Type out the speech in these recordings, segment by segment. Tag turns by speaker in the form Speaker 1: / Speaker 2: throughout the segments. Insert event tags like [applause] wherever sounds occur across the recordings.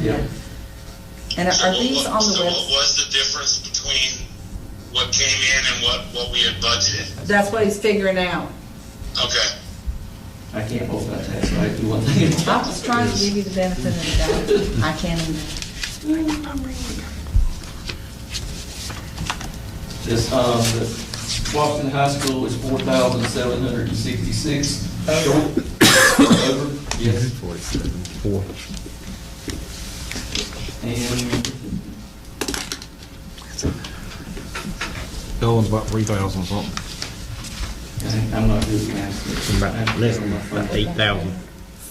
Speaker 1: Yeah.
Speaker 2: And are are
Speaker 3: So
Speaker 2: these
Speaker 3: what-
Speaker 2: on the
Speaker 3: So what
Speaker 2: web?
Speaker 3: was the difference between what came in and what, what we had budgeted?
Speaker 2: That's what he's figuring out.
Speaker 3: Okay,
Speaker 1: I can't hold that tax, so I do one thing at a
Speaker 2: I
Speaker 1: time.
Speaker 2: was trying to give you the benefit of the doubt. I can't even.
Speaker 1: This, um, the Washington High School was four thousand seven hundred and sixty-six short, over, yes.
Speaker 4: Four.
Speaker 1: And
Speaker 4: That one's about three thousand something.
Speaker 1: I- I'm not doing math.
Speaker 5: About less than about eight thousand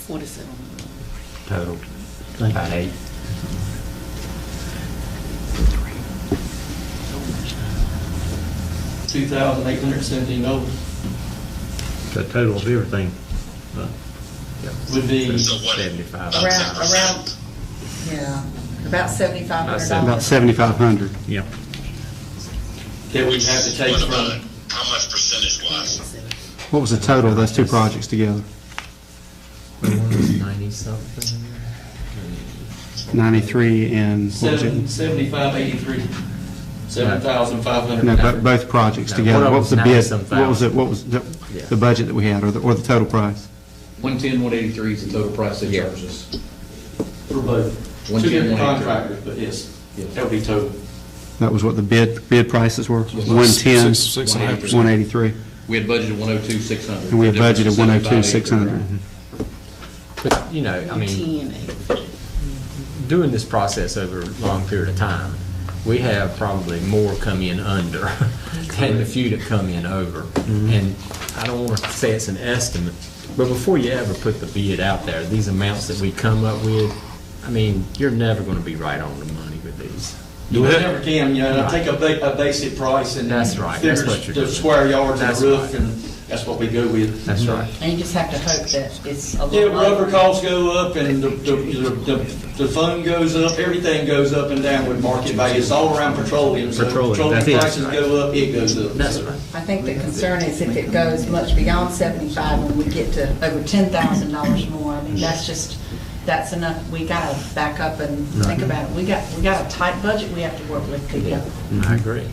Speaker 6: Forty-seven.
Speaker 5: total. About eight.
Speaker 1: Two thousand eight hundred and seventeen over
Speaker 5: The total of everything. uh,
Speaker 1: would be,
Speaker 3: so what?
Speaker 5: Seventy-five.
Speaker 3: about
Speaker 2: Around-
Speaker 3: 10%?
Speaker 2: around- Yeah, about seventy-five hundred
Speaker 4: About
Speaker 2: dollars.
Speaker 4: seventy-five hundred.
Speaker 5: Yeah.
Speaker 1: that we have to take
Speaker 3: What about
Speaker 1: from,
Speaker 3: it? How much percentage wise?
Speaker 4: What was the total of those two projects together?
Speaker 7: something.
Speaker 4: Ninety-three and, what was
Speaker 1: seven,
Speaker 4: it?
Speaker 1: seventy-five eighty-three, seven thousand five hundred.
Speaker 4: no, bo- both projects
Speaker 7: No,
Speaker 4: together.
Speaker 7: one
Speaker 4: What
Speaker 7: of
Speaker 4: was the
Speaker 7: them's
Speaker 4: bid?
Speaker 7: 90-some
Speaker 4: What was it, what was the,
Speaker 7: Yeah.
Speaker 4: the budget that we had, or the, or the total price?
Speaker 8: 110, 183 is the total price they
Speaker 7: Yeah.
Speaker 8: charged us.
Speaker 1: For both, two
Speaker 8: One ten,
Speaker 1: different
Speaker 8: one eight.
Speaker 1: contractors, but yes, that would be total.
Speaker 4: That was what the bid, bid prices were? One-ten,
Speaker 8: Six and a half percent.
Speaker 4: one-eighty-three,
Speaker 8: We had budgeted 102, 600.
Speaker 4: and we had budgeted one-oh-two, oh six hundred.
Speaker 7: But, you know, I mean,
Speaker 6: Ten, eight.
Speaker 7: doing this process over a long period of time, we have probably more come in under [laughs] than the few that come in over. And I don't want to say it's an estimate, but before you ever put the bid out there, these amounts that we come up with, I mean, you're never going to be right on the money with these.
Speaker 1: You never can, you know, take a ba, a basic price and.
Speaker 7: That's right, that's
Speaker 1: figure
Speaker 7: what you're
Speaker 1: The
Speaker 7: doing.
Speaker 1: square yards and
Speaker 7: That's
Speaker 1: the roof,
Speaker 7: right.
Speaker 1: and that's what we go with.
Speaker 7: That's right.
Speaker 2: And you just have to hope that it's a
Speaker 1: Yeah,
Speaker 2: little.
Speaker 1: rubber costs go up, and the, the, the, the phone goes up, everything goes up and down with market value, it's all around petroleum. So
Speaker 5: Petroleum,
Speaker 1: Petroleum
Speaker 5: that's it.
Speaker 1: prices go up, it goes up.
Speaker 7: That's right.
Speaker 2: I think the concern is if it goes much beyond seventy-five and we get to over ten thousand dollars more, I mean, that's just, that's enough. We gotta back up and think about it. We got, we got a tight budget we have to work with together.
Speaker 7: I agree.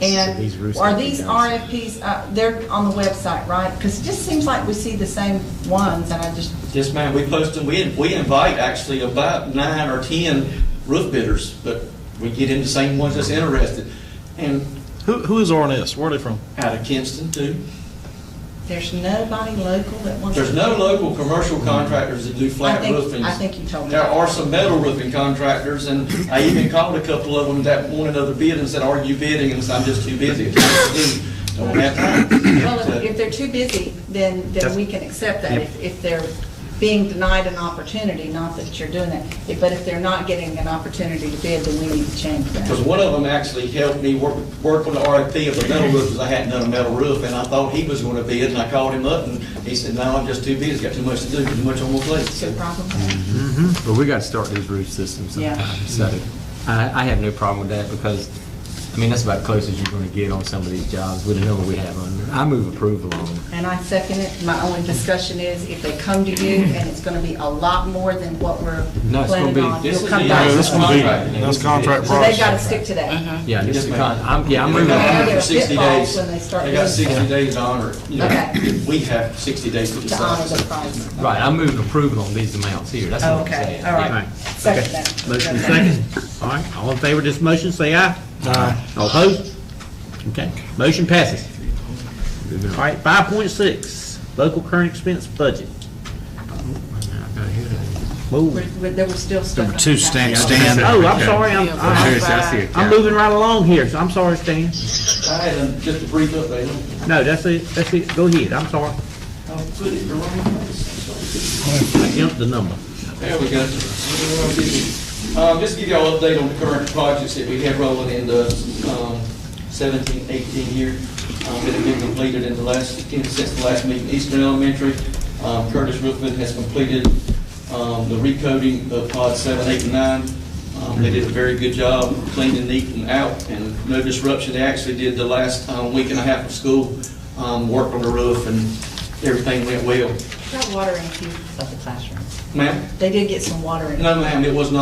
Speaker 2: And
Speaker 7: These roofs
Speaker 2: are
Speaker 7: have to
Speaker 2: these
Speaker 7: be done.
Speaker 2: RFPs, uh, they're on the website, right? Because it just seems like we see the same ones and I just,
Speaker 1: Yes, ma'am, we post them, we, we invite actually about nine or 10 roof bidders, but we get in the same ones that's interested. And
Speaker 9: Who, who is RNS? Where are they from?
Speaker 1: out of Kinston too,
Speaker 2: there's nobody local that wants.
Speaker 1: there's no local commercial contractors that do
Speaker 2: I
Speaker 1: flat
Speaker 2: think,
Speaker 1: roofing.
Speaker 2: I think you told me.
Speaker 1: There
Speaker 2: that.
Speaker 1: are some metal roofing contractors, and I even called a couple of them that wanted other bid and said, are you bidding? And I said, I'm just too busy. Don't have
Speaker 2: Well, if-
Speaker 1: time.
Speaker 2: if they're too busy, then, then we can accept that, if, if they're being denied an opportunity, not that you're doing that. If- But if they're not getting an opportunity to bid, then we need to change
Speaker 1: Because
Speaker 2: that.
Speaker 1: one of them actually helped me work, work on the RFP of a metal roof, because I hadn't done a metal roof, and I thought he was gonna bid, and I called him up, and he said, no, I'm just too busy, got too much to do, too much on my plate.
Speaker 2: It's your
Speaker 1: So,
Speaker 2: problem.
Speaker 7: But we got to start these roof systems
Speaker 2: Yeah.
Speaker 7: sometime. So I, I have no problem with that because, I mean, that's about as close as you're going to get on some of these jobs with the number we have under. I move approval on them.
Speaker 2: And I second it. My only discussion is if they come to you and it's gonna be a lot more than what we're
Speaker 7: No, it's gonna
Speaker 2: planning
Speaker 7: be-
Speaker 2: on,
Speaker 1: This
Speaker 2: you'll
Speaker 1: is
Speaker 2: come
Speaker 1: the-
Speaker 2: back.
Speaker 1: this
Speaker 4: That's
Speaker 1: is the
Speaker 4: gonna be-
Speaker 1: contract.
Speaker 4: that's contract
Speaker 2: So they've gotta stick to that.
Speaker 7: Yeah,
Speaker 1: Yes,
Speaker 7: this is
Speaker 1: ma'am.
Speaker 7: con, I'm, yeah, I'm
Speaker 1: They
Speaker 7: moving.
Speaker 2: Yeah.
Speaker 1: got
Speaker 2: Yeah.
Speaker 1: sixty
Speaker 2: Pitfalls
Speaker 1: days.
Speaker 2: when they start
Speaker 1: They got
Speaker 2: doing-
Speaker 1: sixty days to honor it. You know,
Speaker 2: Okay.
Speaker 1: We have sixty days to
Speaker 2: to honor
Speaker 1: decide.
Speaker 2: the price.
Speaker 7: Right, I'm moving approval on these amounts here. That's what I'm
Speaker 2: Okay,
Speaker 7: saying.
Speaker 2: all
Speaker 7: Yeah.
Speaker 2: right.
Speaker 5: Right.
Speaker 2: Second that.
Speaker 5: Motion is second. All right, all in favor of this motion, say aye. Aye. All opposed? Okay, motion passes. All right, five point six, local current expense budget. Whoa.
Speaker 2: We're- we're- There was still stuff.
Speaker 9: Number two, Stan, Stan.
Speaker 5: Oh, I'm sorry, I'm, I'm-
Speaker 2: Stand.
Speaker 5: I'm moving right along here, so I'm sorry, Stan.
Speaker 1: I had a- just a brief update.
Speaker 5: No, that's it, that's it, go ahead, I'm sorry.
Speaker 1: I'll Oh, put it in the wrong place.
Speaker 5: I jumped the number.
Speaker 1: There we go. Um, just to give y'all an update on the current projects that we have rolling in the, um, 17, 18 year, um, that have been completed in the last, since the last meeting. Eastern Elementary, um, Curtis Rookman has completed, um, the recoding of pod seven, eight, and nine. Um, they did a very good job, clean and neat and out, and no disruption. They actually did the last, um, week and a half of school, um, work on the roof, and everything went well.
Speaker 2: Got water in a few of the classrooms.
Speaker 1: Ma'am?
Speaker 2: They did get some water in.
Speaker 1: No, ma'am, it was not